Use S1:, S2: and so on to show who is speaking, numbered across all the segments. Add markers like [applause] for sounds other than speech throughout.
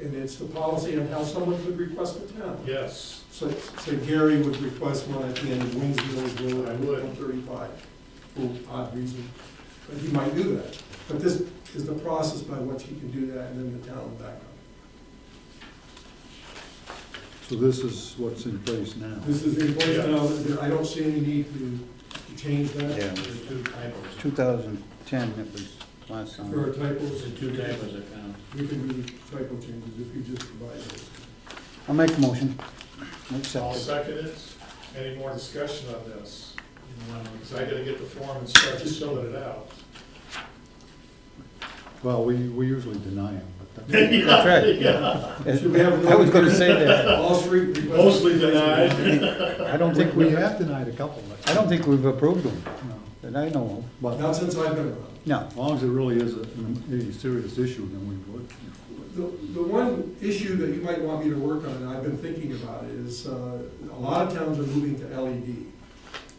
S1: And it's the policy on how someone could request a town.
S2: Yes,
S1: So, so Gary would request one at the end of Winsville,
S2: I
S1: Road,
S2: would.
S1: one thirty-five, for odd reason. But he might do that. But this is the process by which he can do that, and then the town will back up.
S3: So this is what's in place now.
S1: This is in place now, There- I don't see any need to to change that.
S4: Yeah,
S2: there's two typos.
S4: 2010, it was last
S1: There are
S4: time.
S1: typos,
S2: There's two typos I found.
S1: we can do typo changes if you just provide those.
S4: I'll make a motion.
S2: I'll
S4: Accept it.
S2: second it. Any more discussion on this? Because I gotta get the form and start filling it
S4: [laughs]
S2: out.
S3: Well, we, we usually deny them, but that-
S4: That's right.
S2: Yeah.
S1: Should we have
S4: I was gonna say that.
S1: All three requests.
S2: Mostly denied.
S4: I don't think
S3: we
S4: we,
S3: have denied a couple, but,
S4: I don't think we've approved them,
S3: no.
S4: that I know
S1: Not since I've been around.
S4: of. No.
S3: As long as it really is a, a serious issue, then we would. you
S1: The, the one issue that you might want me to work on, and I've been thinking about it, is uh, a lot of towns are moving to LED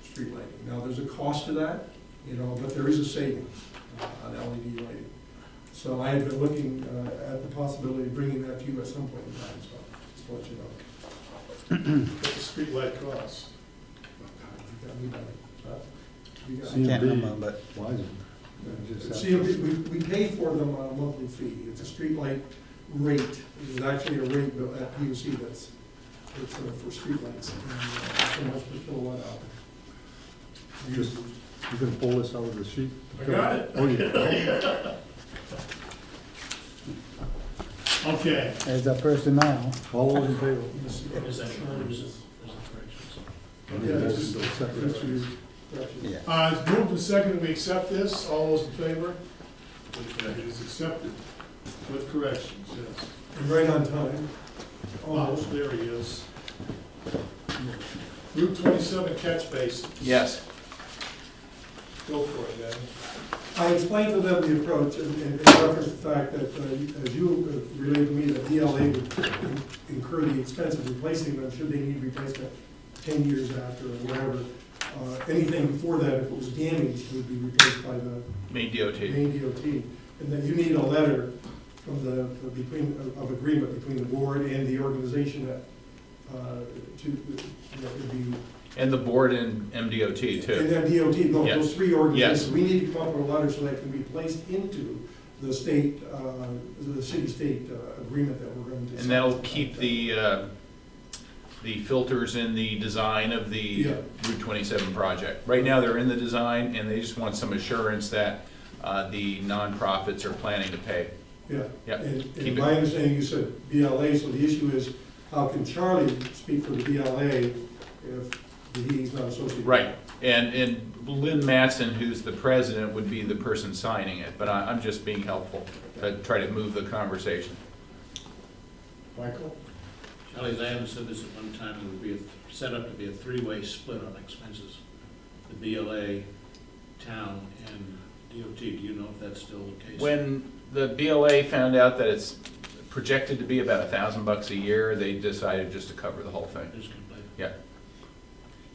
S1: street lighting. Now, there's a cost to that, you know, but there is a savings uh, on LED lighting. So I have been looking uh, at the possibility of bringing that to you at some point in time, so just to let you know.
S2: What's the streetlight cost?
S1: Oh, God, you got me by the- uh, you
S4: I
S1: got-
S4: can't
S3: CMB.
S4: remember, but
S3: know. Why is it?
S1: Uh, See, we, we- we pay for them on a monthly fee, it's a streetlight rate, it's actually a rate bill at PUC that's, it's uh, for streetlights, and uh, so much per kilowatt hour.
S3: Just- You gonna pull this out of the sheet?
S2: I got it.
S3: Oh, [laughs] yeah.
S2: Okay.
S4: as a personnel,
S3: All those in favor?
S1: Yeah, it's-
S3: Motion to accept it.
S1: it's used, correction.
S4: yeah.
S2: Uh, it's moved and seconded, we accept this, all those in favor? It is accepted with corrections, yes.
S1: And right on time,
S2: Oh,
S1: almost,
S2: there he is. Route twenty-seven catch basin,
S5: Yes.
S2: go for it, Danny.
S1: I explained to them the approach and and in reference to the fact that, uh, you- as you uh, relayed to me, that DLA would incur the expense of replacing them should they need replacement ten years after or whatever. Uh, Anything before that, if it was damaged, would be replaced by the
S5: Main DOT.
S1: main DOT. And then you need a letter from the, of between, of- of agreement between the board and the organization that, uh, to, that would be
S5: And the board and MDOT
S1: and
S5: too.
S1: then DOT, no, those
S5: Yes.
S1: three
S5: Yes.
S1: organizations, we need to come up with a letter so that can be placed into the state, uh, the city-state uh, agreement that we're going to.
S5: And that'll keep the, uh, the filters in the design of the
S1: Yeah.
S5: Route 27 project. Right now, they're in the design and they just want some assurance that uh, the nonprofits are planning to pay.
S1: Yeah.
S5: Yeah,
S1: And
S5: keep
S1: and
S5: it.
S1: my understanding, you said BLA, so the issue is, how can Charlie speak for the BLA if he's not associated?
S5: Right, and, and Lynn Matson, who's the president, would be the person signing it, but I- I'm just being helpful to try to move the conversation.
S2: Michael?
S6: Charlie, I haven't said this at one time, it would be a- set up to be a three-way split on expenses. The BLA, town, and DOT, do you know if that's still the case?
S5: When the BLA found out that it's projected to be about a thousand bucks a year, they decided just to cover the whole thing.
S6: Just completely-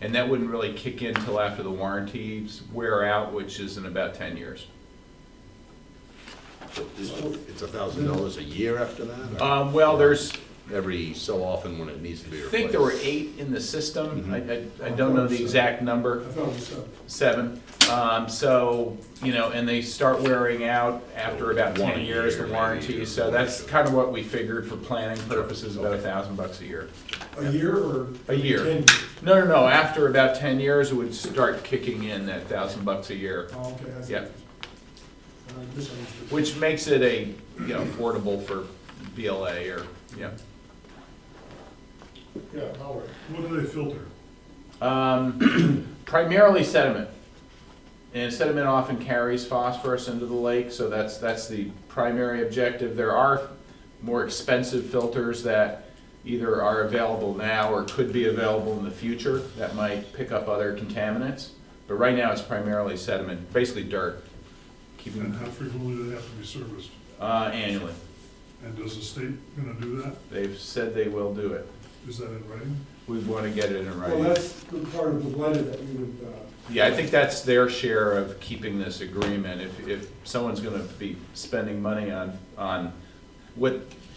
S5: And that wouldn't really kick in till after the warranties wear out, which is in about ten years.
S7: It's a thousand dollars a year after that? or
S5: Um, well, there's,
S7: Every so often when it needs to be
S5: I
S7: replaced?
S5: think there were eight in the system, I,
S7: Mm-hmm.
S5: I, I don't know the exact
S1: I
S5: number,
S1: thought it was uh, seven.
S5: seven. Um, so, you know, and they start wearing out after about
S7: One a
S5: ten years, the
S7: year, maybe,
S5: warranty,
S7: or
S5: so that's kind of what we figured for planning purposes, about a thousand bucks a year.
S1: A year or?
S5: A year.
S1: Ten years?
S5: No, no, no, after about ten years, it would start kicking in that thousand bucks a year,
S1: Oh, okay, I see.
S5: Yeah.
S1: Uh, misunderstood.
S5: which makes it a, you know, affordable for BLA or, yeah.
S2: Yeah, Howard.
S3: What do they filter?
S5: Um, [clears throat] primarily sediment. And sediment often carries phosphorus into the lake, so that's, that's the primary objective. There are more expensive filters that either are available now or could be available in the future that might pick up other contaminants. But right now, it's primarily sediment, basically dirt, keeping
S8: And how frequently do they have to be serviced?
S5: Uh, annually.
S8: And does the state gonna do that?
S5: They've said they will do it.
S8: Is that in writing?
S5: We want to get it in
S1: Well,
S5: writing.
S1: that's the part of the letter that we would, uh,
S5: Yeah, I think that's their share of keeping this agreement. If, if someone's going to be spending money on, on what